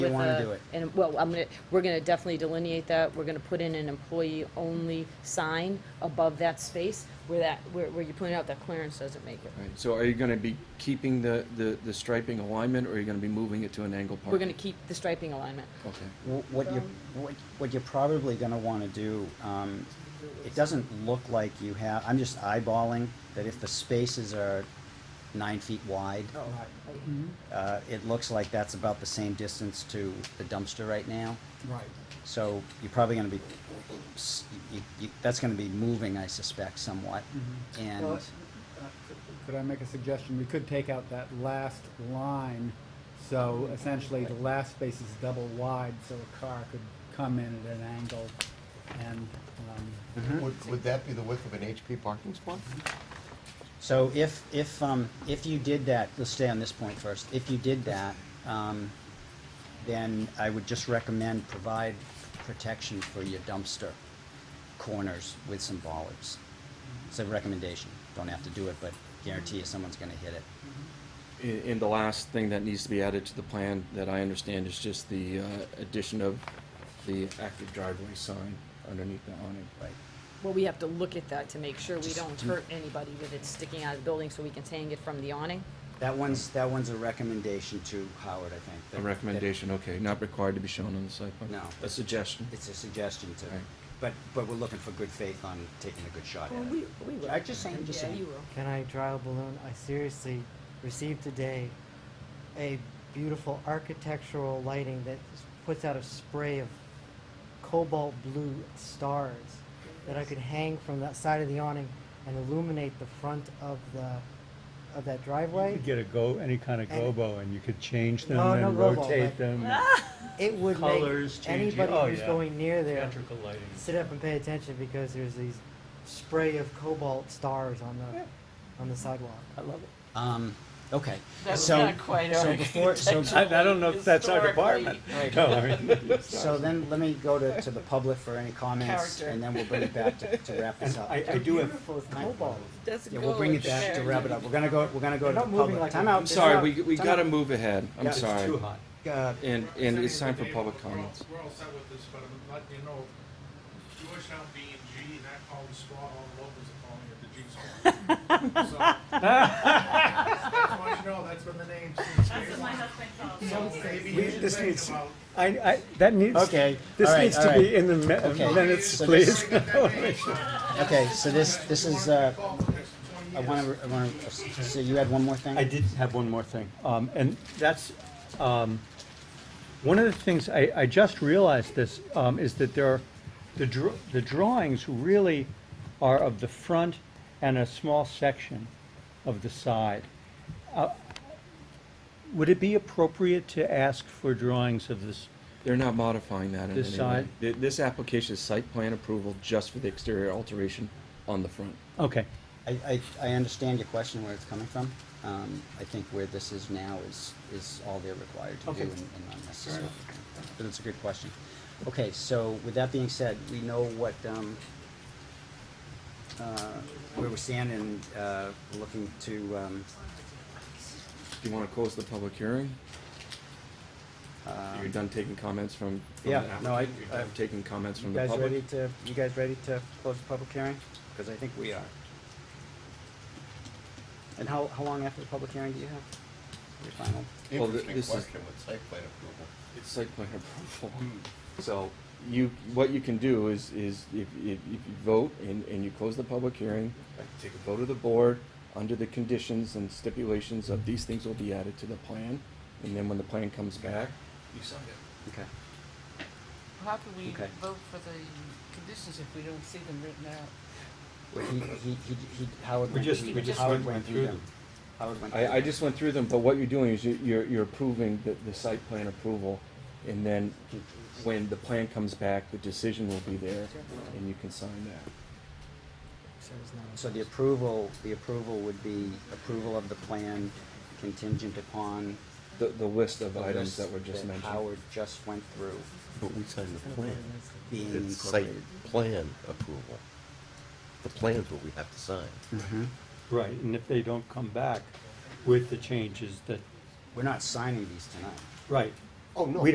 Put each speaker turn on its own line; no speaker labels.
You
with
wanna
a-
do it.
And, well, I'm gonna, we're gonna definitely delineate that, we're gonna put in an employee-only sign above that space where that, where, where you pointed out that clearance doesn't make it.
Right, so are you gonna be keeping the, the, the striping alignment, or are you gonna be moving it to an angle parking?
We're gonna keep the striping alignment.
Okay,
Wh- What you, what, what you're probably gonna wanna do, um, it doesn't look like you have, I'm just eyeballing that if the spaces are nine feet wide, uh, it looks like that's about the same distance to the dumpster right now.
Right.
So you're probably gonna be, s- you, you, that's gonna be moving, I suspect, somewhat.
Well,
And,
uh, Could I make a suggestion? We could take out that last line, so essentially the last space is double wide, so a car could come in at an angle and, um,
Would, would that be the width of an HP parking spot?
so if, if, um, if you did that, let's stay on this point first, if you did that, um, then I would just recommend provide protection for your dumpster corners with some bollards. It's a recommendation, don't have to do it, but guarantee you someone's gonna hit it.
and, and the last thing that needs to be added to the plan that I understand is just the, uh, addition of the active driveway sign underneath the awning.
Right.
Well, we have to look at that to make sure we don't hurt anybody with it sticking out of the building, so we can hang it from the awning.
That one's, that one's a recommendation to Howard, I think. that-
A
that-
recommendation, okay, not required to be shown on the site plan?
No.
A suggestion?
It's a suggestion to,
Right.
but, but we're looking for good faith on taking a good shot at
we,
it.
we will.
I'm just saying, just saying.
You will.
Can I draw a balloon? I seriously received today a beautiful architectural lighting that s- puts out a spray of cobalt blue stars that I could hang from that side of the awning and illuminate the front of the of that
You
driveway.
could get a go, any kind of
And-
gobo, and you could change them
No, no
and
gobo, like-
rotate them.
It would
Colours
make
changing.
anybody
Oh,
who's
yeah.
going near there
Theatrical lighting.
sit up and pay attention because there's these spray of cobalt stars on the on the sidewalk. I love it.
Um, okay.
That's
So-
not quite
So
our
before, so,
I, I don't know if that's our
Historically-
department. No, I mean,
so then let me go to, to the public for any comments
Character.
and then we'll bring it back to, to wrap this
and
up.
I, I do have,
Beautiful with cobalt.
Doesn't
Yeah,
go
we'll bring it
with
back to
character.
wrap it up. We're gonna go, we're gonna go to
They're
the
not moving
public.
like
Time
a-
out.
I'm
It's
sorry,
not-
we, we
time
gotta
out.
move ahead, I'm
it's
sorry.
too hot.
Uh,
And, and it's time for public comments.
We're all set with this, but I'm letting you know, Georgetown B and G, and I call it squad, all the locals are calling it the G squad. So, Just want you to know, that's been the name since. That's what my husband calls. So maybe
We-
you should
this
think
needs-
about.
I, I, that needs,
Okay, all
this
right,
needs
all
to
right.
be in the me-
Okay.
minutes,
So
please.
Bring up that name, so
Okay, so this, this
you
is,
wanna
uh,
be involved for the next 20
I
years.
wanna, I wanna, so you had one more thing?
I did have one more thing, um, and that's, um, one of the things, I, I just realized this, um, is that there are, the dr- the drawings really are of the front and a small section of the side. Uh, Would it be appropriate to ask for drawings of this?
They're not modifying that in
This
any way.
side?
Th- This application is site plan approval just for the exterior alteration on the front.
Okay,
I, I, I understand your question where it's coming from. Um, I think where this is now is, is all they're required to do
Okay.
and and unnecessary. But it's a good question. Okay, so with that being said, we know what, um, uh, where we're standing, and, uh, we're looking to, um,
Do you want to close the public hearing? You're
um,
done taking comments from? from
Yeah,
the
no, I-
applicant? You're done
I-
Taking comments
you
from the
guys ready
public?
to, you guys ready to close the public hearing? Cause I think we are. And how, how long after the public hearing do you have? Your final?
Well, th-
Interesting
this is-
question with site plan approval.
It's site plan approval. So you, what you can do is, is if, if if you vote and, and you close the public hearing, take a vote of the board under the conditions and stipulations of these things will be added to the plan. And then when the plan comes back, you sign it.
Okay.
How can we
Okay.
vote for the conditions if we don't see them written out?
Well, he, he, he, he, Howard
We
went
just-
through
we
them.
just
Howard
went-
went
went
through
through
them. Howard went through them.
I, I just went through them, but what you're doing is you- you're, you're approving the, the site plan approval, and then when the plan comes back, the decision will be there, and you can sign that.
So the approval, the approval would be approval of the plan contingent upon
The, the list of
the
items
list
that were just
that
mentioned.
Howard just went through
But we signed the plan.
being
It's site
incorporated.
plan approval. The plan's what we have to sign.
Mhm.
right, and if they don't come back with the changes that,
We're not signing these tonight.
right,
Oh, no,